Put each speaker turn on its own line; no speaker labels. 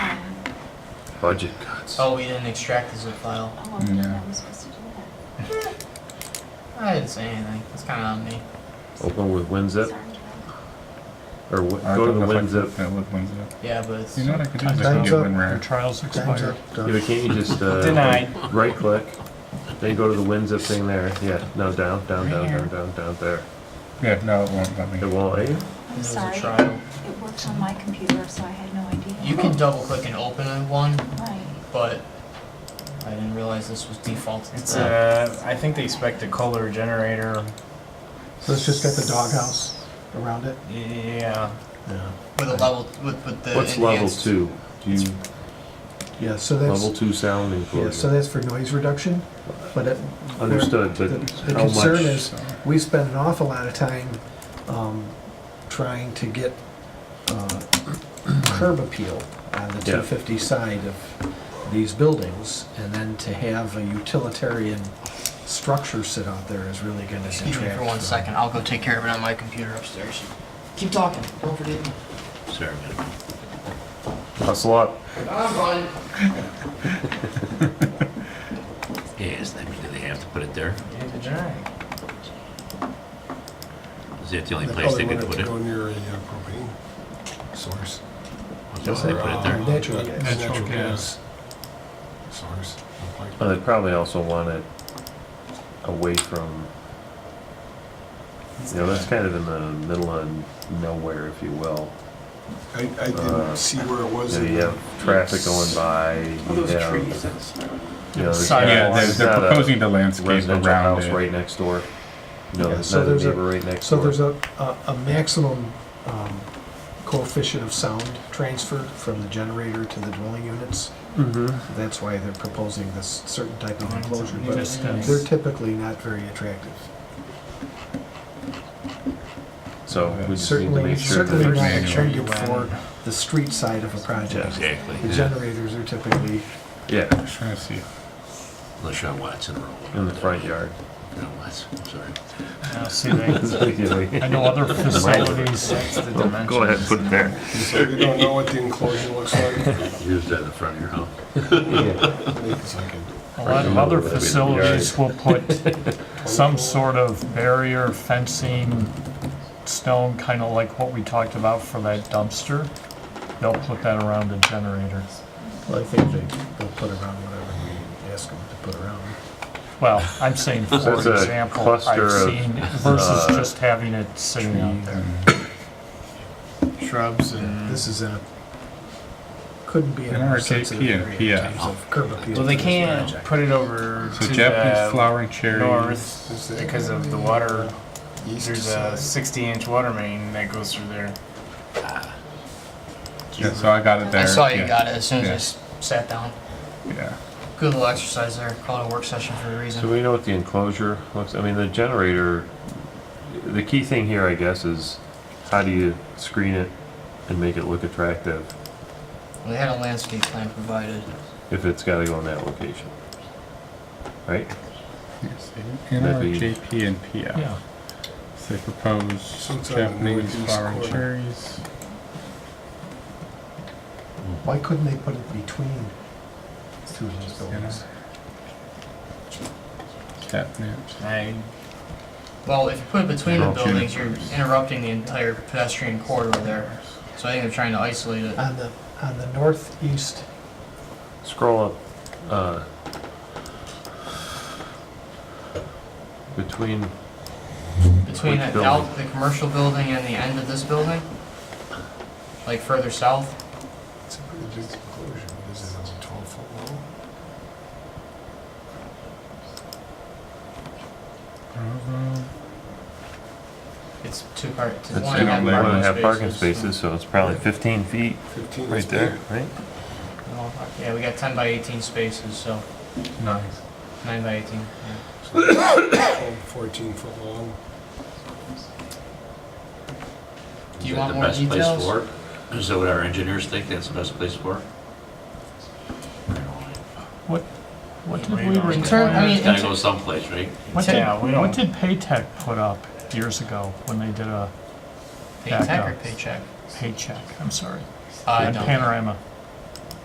Budget cuts.
Oh, we didn't extract the zip file.
Oh, I didn't know
Yeah.
I was supposed to do that.
I didn't say anything. It's kind of on me.
Open with
Sorry,
WinZip
Joanna.
or w-
I
go to the
thought that's like-
WinZip.
Yeah, with WinZip.
Yeah, but it's
You know what I could do? is I could
Time's
get
up.
WinRare.
Your trial's
Time's
expired.
up.
Yeah,
Done.
but can't you just uh,
Denied.
Right click, then go to the WinZip thing there. Yeah, no down, down, down, down, down, down there.
Yeah, no, it won't let me.
It won't. Eh?
it
I'm
was
sorry,
a trial.
it works on my computer, so I had no idea.
You can double click and open a one,
Right.
but I didn't realize this was defaulted.
It's uh, I think they expect a color generator.
So it's just got the doghouse around it.
Yeah.
Yeah.
with a level with with the
uh, What's level
enhanced.
two? Do you
Yeah, so
level
that's,
two sound enclosure?
yeah, so that's for noise reduction, but it.
Understood,
The
but
the
how much?
concern is, we spend an awful lot of time, um, trying to get, uh, curb appeal on the
Yeah.
two fifty side of these buildings, and then to have a utilitarian structure sit out there is really gonna detract.
Excuse me for one
from-
second. I'll go take care of it on my computer upstairs. Keep talking. Don't forget me.
Sorry, man.
Hustle up.
I'm fine.
Yes, I mean, do they have to put it there?
It's a generator.
Is that the only place they could put it?
They probably wanted to go near a uh, propane source.
That's why they put it
Or, uh,
there.
Natural
nat-
gas.
Natural
Natural
gas source. like-
Well, uh, they probably also want it away from. You know, that's kind of in the middle of nowhere, if you will.
I, I
Uh,
didn't see where it was.
You know,
in
you
the-
have traffic going by. you have- You know, there's
Sidewalks.
Yeah,
not-
they're,
it's
they're
not a
proposing to landscape
Residential
around
house
it.
right next door. No,
Yeah,
it's
so
not a
there's a-
neighbor right next
So
door.
there's a, a- a maximum um, coefficient of sound transferred from the generator to the dwelling units.
Mm-hmm.
That's why they're proposing this certain type of enclosure, but
Discuss.
they're typically not very attractive.
So we just need to
Certainly,
make sure that
certainly
there's.
not
manual.
attractive for the street side of a project.
Exactly.
The generators are typically,
Yeah,
I'm just trying to see.
Unless you're on Watson Road.
in the front yard.
You're on Watson, I'm sorry.
Now, see, they, I know other facilities,
That's the dimensions.
Go ahead, put it there.
So they don't know what the enclosure looks like.
Here's that in the front of your house.
Yeah.
Maybe it's like a
a lot of other facilities will put some sort of barrier fencing, stone, kind of like what we talked about for that dumpster. They'll put that around the generator.
well, I think they, they'll put around whatever we ask them to put around.
Well, I'm saying, for
it's a
example,
cluster
I've
of,
seen versus
uh,
just having it sitting out there.
Shrubs and.
This is in a, couldn't be in a
In
more
RKP
sensitive
and
area in
PI.
terms of curb appeal.
Well, they
for this
can't
project.
put it over
So
to
Japanese
the
flowering cherries.
Is
north
it-
because of the water.
east
There's a
side.
60-inch water main that goes through there.
Yeah, so I got it there.
I saw you
yeah.
got it as soon as I
Yeah.
s I sat down.
Yeah.
Good little exercise there. Call it a work session for a reason.
So we know what the enclosure looks, I mean, the generator, the key thing here, I guess, is how do you screen it and make it look attractive
They had a landscape plan provided.
if it's gotta go in that location? Right?
Yes,
That'd be-
NRJP and PI.
Yeah,
So they propose
Sometime in the
Japanese
northeast
flowering
corner.
cherries.
Why couldn't they put it between two of those buildings?
Catnip.
I
Well, if you put it between the
Okay.
buildings, you're interrupting the entire pedestrian corridor there. So I think they're trying to isolate it.
On the, on the northeast,
Scroll up, uh, between,
Between
Which
the, out, the commercial building and the end of this building? Like further south?
It's a pretty big enclosure. What is it, it's a 12 foot wall?
It's two part, it's
it's
one
one
and a
got
and
half
one and
a
parking
half parking
spaces.
spaces, so it's probably fifteen feet
15 is
right there, right?
Well, Yeah, we got ten by eighteen spaces, so
Nice.
nine by eighteen, yeah.
big. So, 14 foot long.
Do you
Is that
want
the
more
best place
details?
for it? Is that what our engineers think that's the best place for it?
what, what did we
In term, I
require?
mean,
It's gotta
in
go someplace, right?
What did,
Yeah, we don't-
what did Paytech put up years ago when they did a
paycheck or
Backup.
paycheck?
paycheck? I'm sorry.
I
And
don't.
Panorama.